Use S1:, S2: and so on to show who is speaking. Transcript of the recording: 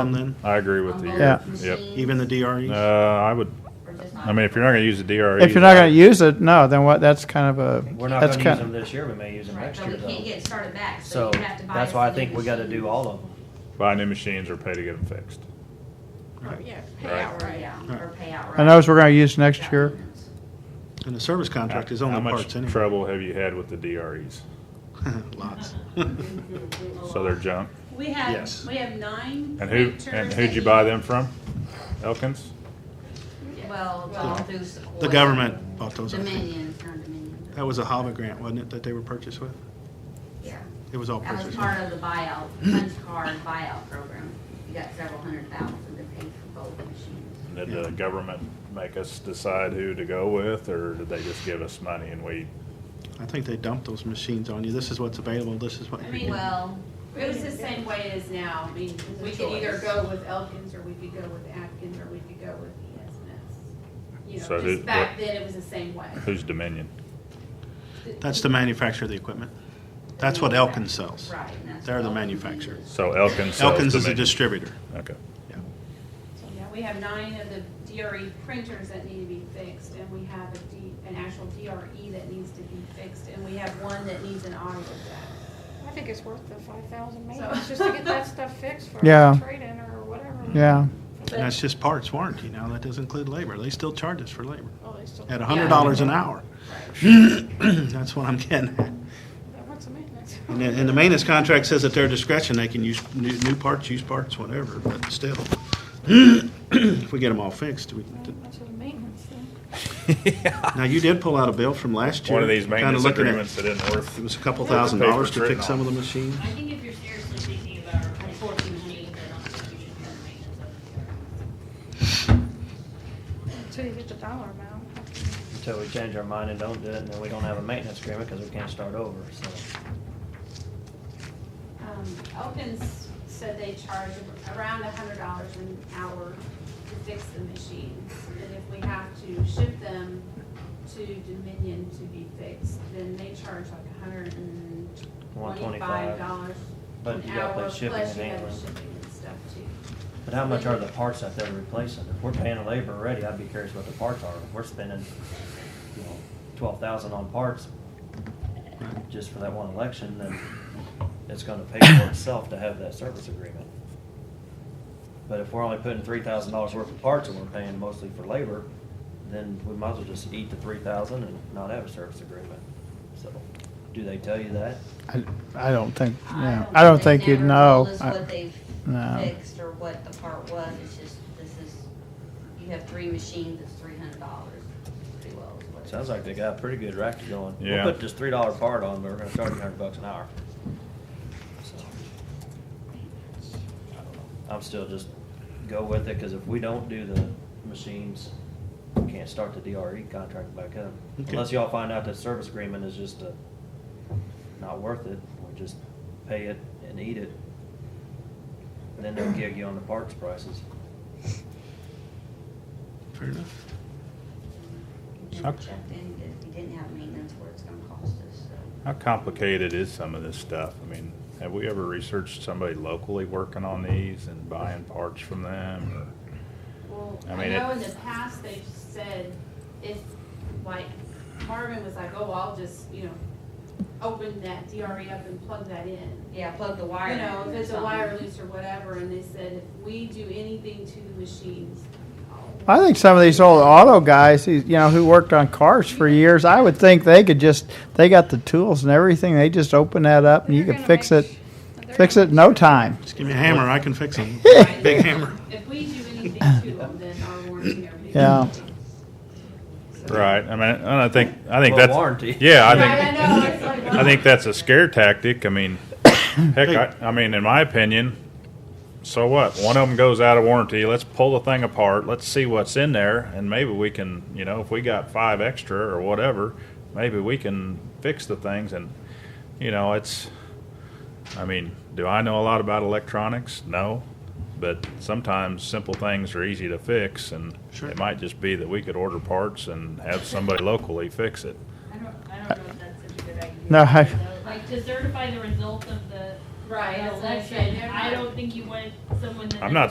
S1: them then,
S2: I agree with you.
S3: Yeah.
S2: Yep.
S1: even the DREs?
S2: Uh, I would, I mean, if you're not gonna use the E DRE.
S3: If you're not gonna use it, no, then what, that's kind of a.
S4: We're not
S3: that's
S4: gonna use
S3: kind-
S4: them this year, we may use them
S5: Right,
S4: next
S5: but
S4: year
S5: we can't
S4: though.
S5: get it started back, so
S4: So,
S5: you have to buy.
S4: that's
S5: us
S4: why I
S5: a
S4: think
S5: new
S4: we gotta
S5: machine.
S4: do all of them.
S2: Buy new machines or pay to get them fixed.
S1: Right.
S6: Yeah,
S2: Right.
S6: pay outright.
S5: Yeah, or pay outright.
S3: And those we're gonna use next year.
S1: And the service contract is
S2: How
S1: only
S2: much
S1: parts anyway.
S2: Trouble have you had with the DREs?
S1: Lots.
S2: So they're junk.
S7: We have,
S1: Yes.
S7: we have nine.
S2: And who,
S7: printers
S2: and
S7: that
S2: who'd you buy them from? Elkins?
S5: Well, it's all through Sequoia.
S1: The government bought those, I think.
S5: Dominion, not Dominion.
S1: That was a HAVA grant, wasn't it, that they were purchased with?
S5: Yeah.
S1: It was all
S5: That was
S1: purchased.
S5: part of the buyout, punch card buyout program. You got several hundred thousand to pay for both machines.
S2: Did the government make us decide who to go with, or did they just give us money and we?
S1: I think they dumped those machines on you. This is what's available, this is what
S7: I
S1: you're
S7: mean,
S1: getting.
S5: Well,
S6: It was the same way it is now. I mean,
S7: It's a
S6: we could either
S7: choice.
S6: go with Elkins or we could go with Atkins or we could go with E ESNS. You
S2: So
S6: know,
S2: who-
S6: just back
S2: what-
S6: then it was the same way.
S2: Who's Dominion?
S1: That's the manufacturer of the equipment. That's what Elkins sells.
S5: right. and that's
S1: They're the
S5: what-
S1: manufacturer.
S2: So Elkins sells
S1: Elkins is a
S2: Dominion.
S1: distributor.
S2: Okay.
S6: So, Yeah, we have nine of the DRE printers that need to be fixed and we have a D, an actual DRE that needs to be fixed and we have one that needs an audio jack.
S8: I think it's worth the five thousand maybe,
S6: So-
S8: it's just to get that stuff fixed for
S3: Yeah.
S8: a trade-in or whatever.
S3: Yeah,
S1: And that's just parts warranty now. That doesn't include labor. They still charge us for labor
S8: Oh, they still,
S1: at hundred dollars an hour. That's what I'm getting at.
S8: what's the maintenance?
S1: And the, and the maintenance contract says at their discretion, they can use new, new parts, used parts, whatever, but still. If we get them all fixed, we,
S8: Much of the maintenance thing.
S1: now you did pull out a bill from last year.
S2: One of these
S1: kinda
S2: maintenance
S1: looking at-
S2: agreements that isn't
S1: It
S2: worth,
S1: was a couple thousand
S2: Paper's
S1: dollars to
S2: written
S1: fix some of the machines.
S9: I think if you're seriously thinking about replacing machines, I don't think you should cut maintenance of the yard.
S8: Until you get the dollar amount.
S4: Until we change our mind and don't do it, and then we don't have a maintenance agreement, cause we can't start over, so.
S6: Um, Elkins said they charge around a hundred dollars an hour to fix the machines. And if we have to ship them to Dominion to be fixed, then they charge like a hundred and
S4: One twenty-five,
S6: twenty-five dollars
S4: but
S6: an
S4: you gotta
S6: hour,
S4: pay
S6: plus you
S4: shipping
S6: have
S4: and
S6: the
S4: handling.
S6: shipping and stuff too.
S4: But how much are the parts that they're replacing? If we're paying labor already, I'd be curious what the parts are. If we're spending, you know, twelve thousand on parts just for that one election, then it's gonna pay for itself to have that service agreement. But if we're only putting three thousand dollars worth of parts and we're paying mostly for labor, then we might as well just eat the three thousand and not have a service agreement. So, do they tell you that?
S3: I, I don't think, yeah, I don't think you'd
S5: they've
S3: know.
S5: never told us
S3: I-
S5: what they've
S3: no.
S5: fixed or what the part was, it's just, this is, you have three machines, it's three hundred dollars, pretty well is what it
S4: Sounds like they got a pretty good racket going.
S2: Yeah.
S4: We'll put this three dollar part on, but we're gonna charge you a hundred bucks an hour. So, I don't know. I'm still just go with it, cause if we don't do the machines, we can't start the DRE contract back up.
S1: Okay.
S4: Unless y'all find out that service agreement is just, uh, not worth it, we just pay it and eat it. And then they'll gig you on the parts prices.
S1: Fair enough.
S5: is. Never checked in, if we didn't have maintenance, what it's gonna cost us, so.
S2: how complicated is some of this stuff? I mean, have we ever researched somebody locally working on these and buying parts from them? or-
S6: Well,
S2: I
S6: I
S2: mean, it-
S6: know in the past, they've said, if, like, Marvin was like, oh, I'll just, you know, open that DRE up and plug that in.
S5: Yeah, plug the wire.
S6: you
S5: in
S6: know,
S5: or
S6: if it's a
S5: something.
S6: wire loose or whatever, and they said, if we do anything to the machines.
S3: I think some of these old auto guys, these- you know, who worked on cars for years, I would think they could just, they got the tools and everything, they just open that up and you
S8: They're
S3: could
S8: gonna
S3: fix
S8: make
S3: it,
S8: sh- they're
S3: fix
S8: gonna
S3: it in no time.
S1: Just give me a hammer, I can fix them.
S6: Right?
S1: Big hammer.
S6: If we do anything to them, then our warranty, everything.
S3: Yeah.
S2: Right, I mean, and I think, I think
S4: Well,
S2: that's.
S4: warranty.
S2: Yeah, I
S6: Right,
S2: think.
S6: I know, it's like,
S2: I think that's a scare tactic. I mean, heck, I, I mean, in my opinion, so what? One of them goes out of warranty. Let's pull the thing apart. Let's see what's in there, and maybe we can, you know, if we got five extra or whatever, maybe we can fix the things. And you know, it's. I mean, do I know a lot about electronics? No, but sometimes simple things are easy to fix, and
S1: Sure.
S2: it might just be that we could order parts and have somebody locally fix it.
S9: I don't, I don't know if that's such a good idea.
S3: No, I-
S9: Like to certify the result of the
S6: Right,
S9: the
S6: that's what I'm saying,
S9: election,
S6: they're
S9: I
S6: not-
S9: don't think you want someone that.
S2: I'm not